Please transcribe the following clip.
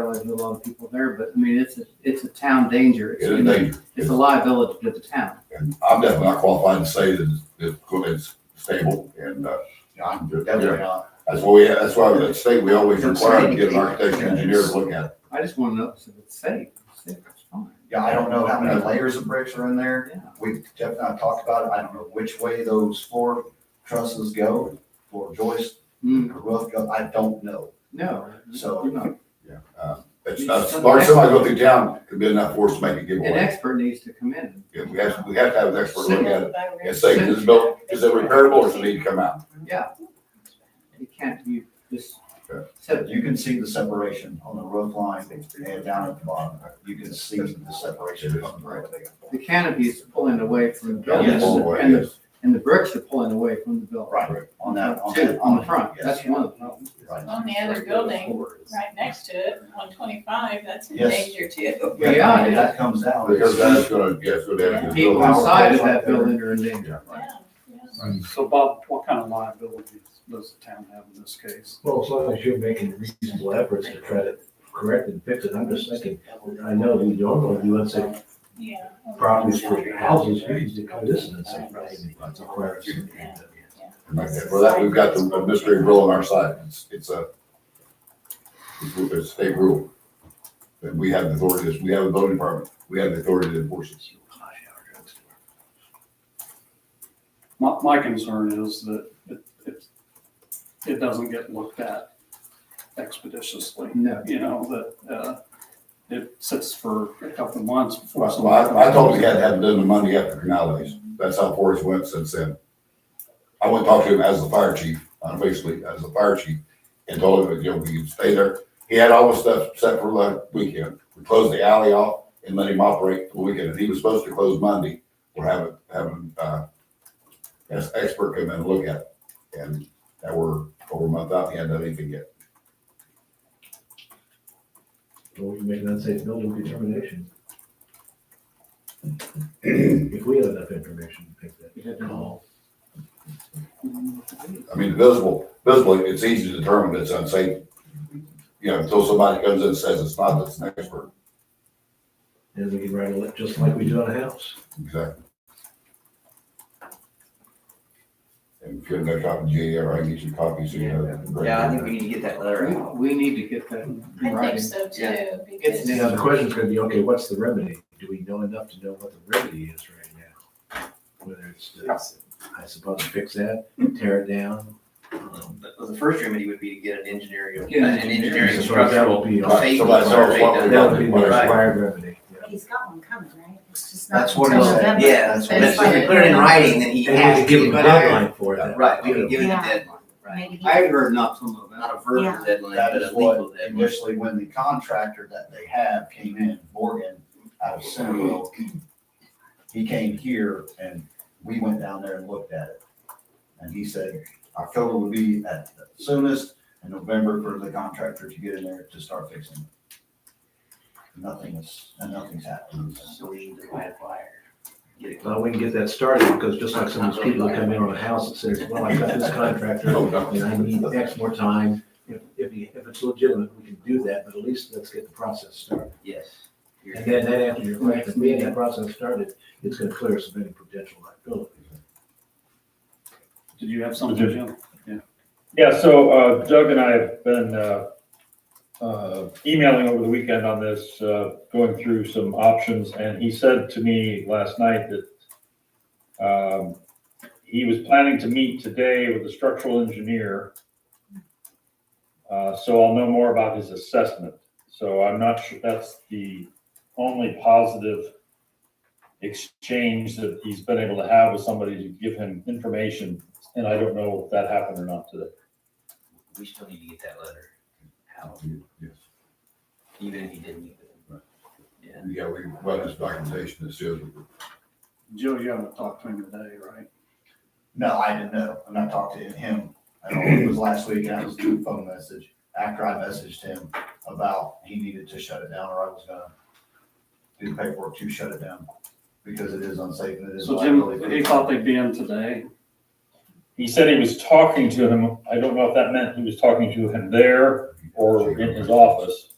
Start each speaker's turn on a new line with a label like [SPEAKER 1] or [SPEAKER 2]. [SPEAKER 1] probably knew a lot of people there, but I mean, it's, a it's a town danger.
[SPEAKER 2] It is
[SPEAKER 1] It's,
[SPEAKER 2] dangerous.
[SPEAKER 1] it's a liability to the town.
[SPEAKER 2] And I'm definitely not qualified to say that the equipment's stable and, uh, you know, I'm just-
[SPEAKER 3] Definitely not.
[SPEAKER 2] that's what we, that's why we, at state, we always require to get an architect and engineer to look at it.
[SPEAKER 1] I just want to know if it's safe. If It's safe, it's fine.
[SPEAKER 3] Yeah, I don't know how many layers of bricks are in there.
[SPEAKER 1] Yeah.
[SPEAKER 3] We've, Jeff and I talked about it. I don't know which way those floor trusses go, floor joists,
[SPEAKER 1] Mm,
[SPEAKER 3] the roof go. I don't know.
[SPEAKER 1] No.
[SPEAKER 3] So-
[SPEAKER 1] you're not.
[SPEAKER 2] Uh, It's not, as long as somebody go through town, it'd be enough force to make a
[SPEAKER 1] An
[SPEAKER 2] giveaway.
[SPEAKER 1] expert needs to come in.
[SPEAKER 2] Yeah, We have, we have to have an expert look at it and say,
[SPEAKER 1] Send-
[SPEAKER 2] is it built, is it repairable or does it need to come out?
[SPEAKER 1] Yeah. You can't, you just
[SPEAKER 2] Yeah.
[SPEAKER 1] said
[SPEAKER 3] You can see the separation on the roof line and down at the bottom. You can see the separation.
[SPEAKER 1] the canopy is pulling away from the
[SPEAKER 3] Yeah,
[SPEAKER 1] building
[SPEAKER 3] yes.
[SPEAKER 1] and the, and the bricks are pulling away from the building.
[SPEAKER 3] Right, on that, on
[SPEAKER 1] Two,
[SPEAKER 3] that.
[SPEAKER 1] on the front,
[SPEAKER 3] yes.
[SPEAKER 1] that's one of them.
[SPEAKER 3] Right.
[SPEAKER 4] On the other building, right next to it, one twenty-five, that's in
[SPEAKER 3] Yes.
[SPEAKER 4] danger too.
[SPEAKER 1] Yeah,
[SPEAKER 3] Yeah,
[SPEAKER 1] yeah.
[SPEAKER 3] that comes out.
[SPEAKER 2] Because that's gonna, yeah, it's gonna damage the
[SPEAKER 1] People
[SPEAKER 2] building.
[SPEAKER 1] inside of that building are in danger.
[SPEAKER 4] Yeah, yeah.
[SPEAKER 5] So Bob, what kind of liabilities does the town have in this case?
[SPEAKER 6] Well, as long as you're making reasonable efforts to try to correct and fix it, I'm just thinking, I know you normally do, let's say,
[SPEAKER 4] Yeah.
[SPEAKER 6] properties for houses, you used to cut this and say, right, that's a question.
[SPEAKER 2] Okay, For that, we've got the mystery rule on our side. It's, it's a, it's a state rule. That we have the authority, we have a building department, we have the authority to enforce it.
[SPEAKER 5] My, my concern is that it, it, it doesn't get looked at expeditiously.
[SPEAKER 1] No.
[SPEAKER 5] You know, that, uh, it sits for a couple of months before.
[SPEAKER 2] Well, I, I told him he had to have it done the Monday after canal days. That's how far it's went since then. I went and talked to him as the fire chief, uh, basically as the fire chief, and told him, you know, we could stay there. He had all the stuff set for the weekend. We closed the alley off and let him operate the weekend. And he was supposed to close Monday. We're having, having, uh, an expert come in and look at it. And that we're over a month out, he hadn't done anything yet.
[SPEAKER 6] Or you make an unsafe building determination. If we have enough information to pick that.
[SPEAKER 2] I mean, visible, visibly, it's easy to determine it's unsafe. You know, until somebody comes in and says it's not, that's an expert.
[SPEAKER 6] And we can write a, li- just like we do on a house.
[SPEAKER 2] Exactly. And if you're in top of GAR, I can get you copies. so you know.
[SPEAKER 7] Yeah, I think we need to get that letter
[SPEAKER 1] We,
[SPEAKER 7] out.
[SPEAKER 1] we need to get that in
[SPEAKER 4] I think
[SPEAKER 1] writing.
[SPEAKER 4] so too,
[SPEAKER 1] It's
[SPEAKER 4] because,
[SPEAKER 1] the
[SPEAKER 6] Now, the question's gonna be, okay, what's the remedy? Do we know enough to know what the remedy is right now? Whether it's, to, I suppose, fix that, tear it down. um,
[SPEAKER 7] Well, The first remedy would be to get an engineering,
[SPEAKER 1] Get
[SPEAKER 7] an
[SPEAKER 1] an
[SPEAKER 7] engineering
[SPEAKER 6] so That
[SPEAKER 7] structural.
[SPEAKER 6] would be,
[SPEAKER 2] Right,
[SPEAKER 7] safety
[SPEAKER 2] somebody tell us
[SPEAKER 7] survey
[SPEAKER 2] what we
[SPEAKER 7] done.
[SPEAKER 2] got.
[SPEAKER 6] that would be the required remedy. yeah.
[SPEAKER 8] He's got one coming, right? It's just not
[SPEAKER 3] That's what he
[SPEAKER 8] until
[SPEAKER 3] said.
[SPEAKER 8] November.
[SPEAKER 7] Yeah,
[SPEAKER 3] That's
[SPEAKER 7] that's
[SPEAKER 3] what
[SPEAKER 7] what, if we
[SPEAKER 3] it is.
[SPEAKER 7] put it in writing, then he
[SPEAKER 6] And we
[SPEAKER 7] has
[SPEAKER 6] can give
[SPEAKER 7] to.
[SPEAKER 6] them a
[SPEAKER 7] but I-
[SPEAKER 6] deadline for that.
[SPEAKER 7] Right, we can give it a
[SPEAKER 8] Yeah.
[SPEAKER 7] deadline, right.
[SPEAKER 8] Maybe he-
[SPEAKER 1] I had heard not some of that.
[SPEAKER 7] Not a verbal
[SPEAKER 8] Yeah.
[SPEAKER 7] deadline,
[SPEAKER 3] That
[SPEAKER 7] but
[SPEAKER 3] is
[SPEAKER 7] a legal
[SPEAKER 3] what
[SPEAKER 7] deadline.
[SPEAKER 3] initially when the contractor that they have came in, Morgan, out of Centerville. He came here and we went down there and looked at it. And he said October would be at the soonest and November for the contractor to get in there to start fixing. it. Nothing is, and nothing's happened.
[SPEAKER 7] So we need to write a flyer. Get it.
[SPEAKER 6] Well, we can get that started because just like some of those people that come in on a house and says, well, I got this contractor
[SPEAKER 7] Oh,
[SPEAKER 6] and I need X more time. If, if he- if it's legitimate, we can do that, but at least let's get the process started.
[SPEAKER 7] Yes. You're-
[SPEAKER 6] And then, then after your question, we get that process started, it's gonna clear us of any potential liability.
[SPEAKER 5] Did you have something, Jim?
[SPEAKER 9] Yeah, so uh, Doug and I have been uh, uh, emailing over the weekend on this, uh, going through some options, and he said to me last night that um, he was planning to meet today with a structural engineer. Uh, So I'll know more about his assessment. So I'm not sure, that's the only positive exchange that he's been able to have with somebody to give him information, and I don't know if that happened or not today.
[SPEAKER 7] We still need to get that letter out,
[SPEAKER 2] Yes.
[SPEAKER 7] even if he didn't meet with them. Yeah.
[SPEAKER 2] Yeah, we run this documentation that says,
[SPEAKER 5] Joe, you haven't talked to him today, right?
[SPEAKER 3] No, I didn't know. And I talked to him, I don't know, it was last week, and I was doing a phone message, after I messaged him about he needed to shut it down, or I was gonna do the paperwork to shut it down, because it is unsafe and it is.
[SPEAKER 5] So Jim,
[SPEAKER 3] liability.
[SPEAKER 5] he thought they'd be in today.
[SPEAKER 9] He said he was talking to him. I don't know if that meant he was talking to him there or in his office.